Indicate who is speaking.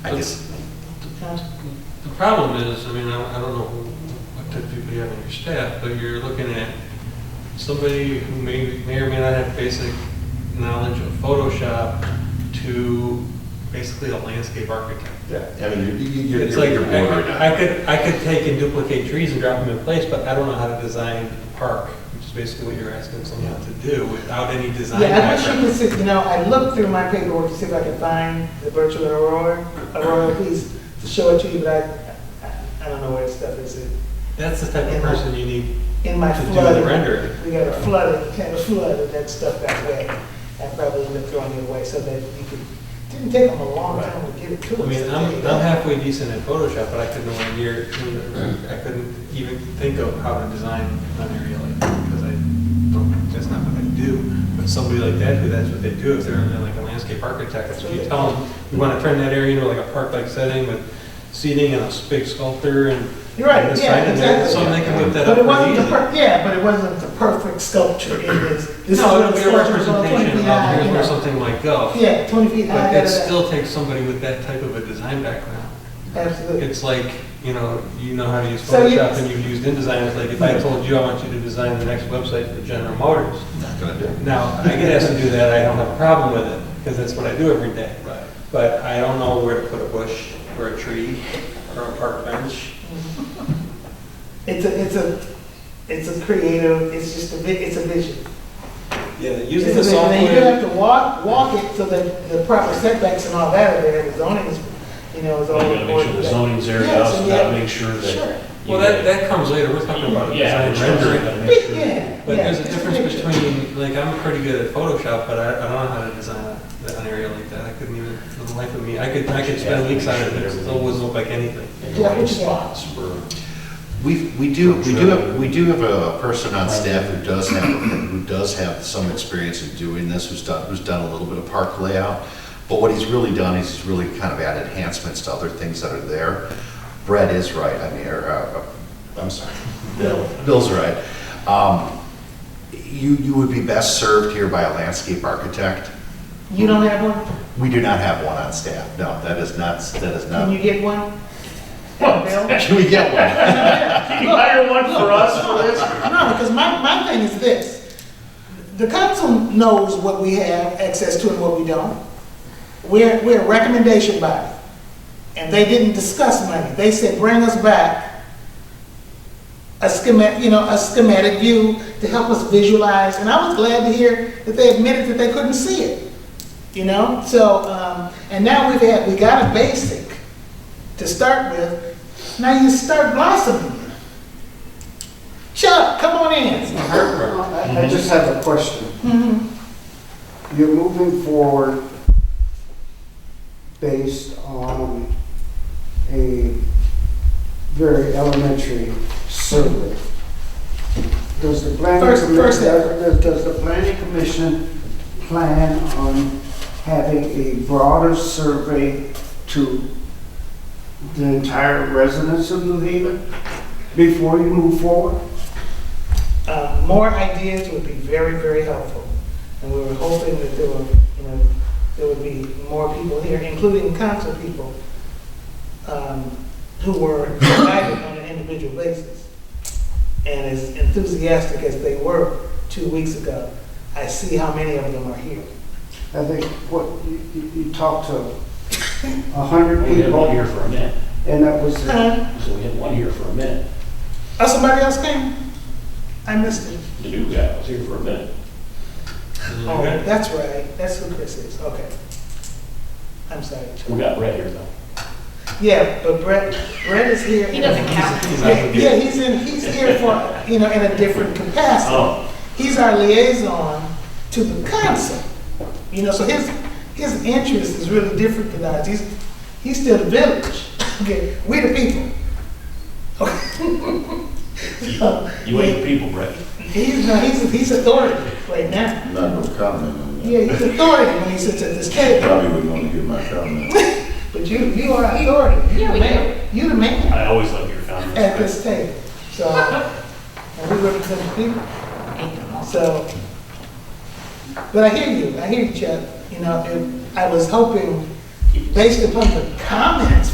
Speaker 1: I just,
Speaker 2: The problem is, I mean, I I don't know what type of people you have on your staff, but you're looking at somebody who may, may or may not have basic knowledge of Photoshop to basically a landscape architect.
Speaker 1: yeah, I mean, you- you, you,
Speaker 2: It's
Speaker 1: you're
Speaker 2: like,
Speaker 1: you're bordering on.
Speaker 2: I I could, I could take and duplicate trees and drop them in place, but I don't know how to design a park, which is basically what you're asking someone to do without any design
Speaker 3: Yeah, I wish you
Speaker 2: background.
Speaker 3: could see, you know, I looked through my paperwork to see if I could find the virtual Aurora, Aurora piece to show it to you, but I- I, I don't know where the stuff is.
Speaker 2: That's the type of person you need
Speaker 3: In my
Speaker 2: To do the
Speaker 3: flood.
Speaker 2: rendering.
Speaker 3: We got a flood, kind of flooded that stuff that way. I probably would have thrown it away so that you could, didn't take them a long time to get it to
Speaker 2: I
Speaker 3: us.
Speaker 2: mean, I'm, I'm halfway decent at Photoshop, but I couldn't one year, I couldn't even think of how to design an area like that, because I don't, that's not what I do. But somebody like that, who that's what they do, if they're like a landscape architect, that's what you tell them, we want to turn that area into like a park-like setting with seating and a big sculpture and.
Speaker 3: You're right,
Speaker 2: and this
Speaker 3: yeah,
Speaker 2: side and that,
Speaker 3: exactly.
Speaker 2: So they can whip that up
Speaker 3: But
Speaker 2: pretty
Speaker 3: it wasn't the,
Speaker 2: easy.
Speaker 3: per- yeah, but it wasn't the perfect sculpture, it was. this is
Speaker 2: No,
Speaker 3: what
Speaker 2: it'll be
Speaker 3: the
Speaker 2: a
Speaker 3: sculpture was, 20
Speaker 2: representation of
Speaker 3: feet high,
Speaker 2: here's
Speaker 3: you
Speaker 2: where
Speaker 3: know.
Speaker 2: something might go.
Speaker 3: Yeah, twenty feet high.
Speaker 2: But
Speaker 3: da, da,
Speaker 2: that
Speaker 3: da.
Speaker 2: still takes somebody with that type of a design background.
Speaker 3: Absolutely.
Speaker 2: It's like, you know, you know how to use
Speaker 3: So you- Hmm.
Speaker 2: Photoshop and you've used InDesign, it's like if I told you I want you to design the next website for General Motors.
Speaker 1: Not gonna do it.
Speaker 2: Now, I get asked to do that, I don't have a problem with it, because that's what I do every day.
Speaker 1: Right.
Speaker 2: But I don't know where to put a bush, or a tree, or a park bench.
Speaker 3: It's a, it's a, it's a creative, it's just a, vi- it's a vision.
Speaker 2: Yeah,
Speaker 3: It's a
Speaker 2: using the
Speaker 3: vision. And you
Speaker 2: software,
Speaker 3: have to walk, walk it so that the proper setbacks and all that are there, the zoning is, you know, is all.
Speaker 4: Well, You gotta make sure the zoning's there, you also gotta make sure
Speaker 3: Sure.
Speaker 4: that. you
Speaker 2: well, that, that comes later, we're talking about
Speaker 4: Yeah,
Speaker 2: design
Speaker 4: which ones you
Speaker 2: rendering.
Speaker 4: gotta make
Speaker 3: Yeah,
Speaker 4: sure.
Speaker 3: yeah.
Speaker 2: But there's a
Speaker 3: it's
Speaker 2: difference
Speaker 3: picture.
Speaker 2: between, like, I'm pretty good at Photoshop, but I, I don't know how to design a- an area like that. I couldn't even, for the life of me, I could, I could spend weeks on it, but it still wouldn't look like anything.
Speaker 4: And
Speaker 3: Yeah,
Speaker 4: white
Speaker 3: which one?
Speaker 4: spots for,
Speaker 5: We, we do, we do, have- we do have a person on staff who does have, who does have some experience in doing this, who's done, who's done a little bit of park layout. But what he's really done is he's really kind of added enhancements to other things that are there. Brett is right, I mean, or, uh, I'm sorry, Bill, Bill's right. Um, You, you would be best served here by a landscape architect.
Speaker 3: You don't have one?
Speaker 5: We do not have one on staff, no, that is not, that is
Speaker 3: Can you
Speaker 5: not.
Speaker 3: get one? Bill?
Speaker 5: Can we get one?
Speaker 4: can you hire one for us for this?
Speaker 3: No, because my, my thing is this. The council knows what we have access to and what we don't. We're, we're a recommendation body. And they didn't discuss money. They said, bring us back a schematic, you know, a schematic view to help us visualize. And I was glad to hear that they admitted that they couldn't see it, you know? So, um, and now we've had, we got a basic to start with. Now you start blossoming. Chuck, come on in.
Speaker 6: I I just have a question.
Speaker 3: Mm-hmm.
Speaker 6: You're moving forward based on a very elementary survey. Does the planning
Speaker 3: First-
Speaker 6: commission,
Speaker 3: first step.
Speaker 6: does does the planning commission plan on having a broader survey to the entire residents of New Haven before you move forward?
Speaker 3: Uh, More ideas would be very, very helpful. And we were hoping that there were, you know, there would be more people here, including council people, um, who were invited on an individual basis. And as enthusiastic as they were two weeks ago, I see how many of them are here.
Speaker 6: I think what, you, you, you talked to a hundred
Speaker 4: We had one
Speaker 6: people,
Speaker 4: here for a minute,
Speaker 6: and that was,
Speaker 3: Huh?
Speaker 4: so we had one here for a minute.
Speaker 3: Oh, somebody else came? I missed it.
Speaker 4: The new guy was here for a minute.
Speaker 3: Oh, that's right, that's who Chris is, okay. I'm sorry. Chuck.
Speaker 4: We got Brett here though.
Speaker 3: Yeah, but Brett, Brett is here.
Speaker 7: He doesn't count.
Speaker 2: He's not
Speaker 3: Yeah,
Speaker 2: gonna be-
Speaker 3: yeah, he's in, he's here for, you know, in a different capacity.
Speaker 4: Oh,
Speaker 3: He's our liaison to the council, you know, so his, his interest is really different than ours. He's, he's still the village, okay, we the people.
Speaker 4: you ain't the people, Brett.
Speaker 3: He's, no, he's, he's authority right now.
Speaker 8: Not no comment on that.
Speaker 3: Yeah, he's authority when he sits at this table,
Speaker 8: Probably wouldn't want to hear my comment.
Speaker 3: but you, you are authority. You
Speaker 7: Yeah,
Speaker 3: the
Speaker 7: we
Speaker 3: man. You the man
Speaker 4: I always love your comments.
Speaker 3: at
Speaker 4: Brett.
Speaker 3: this table, so, and we represent the people. So, but I hear you, I hear you, Chuck. You know, if- I was hoping based upon the comments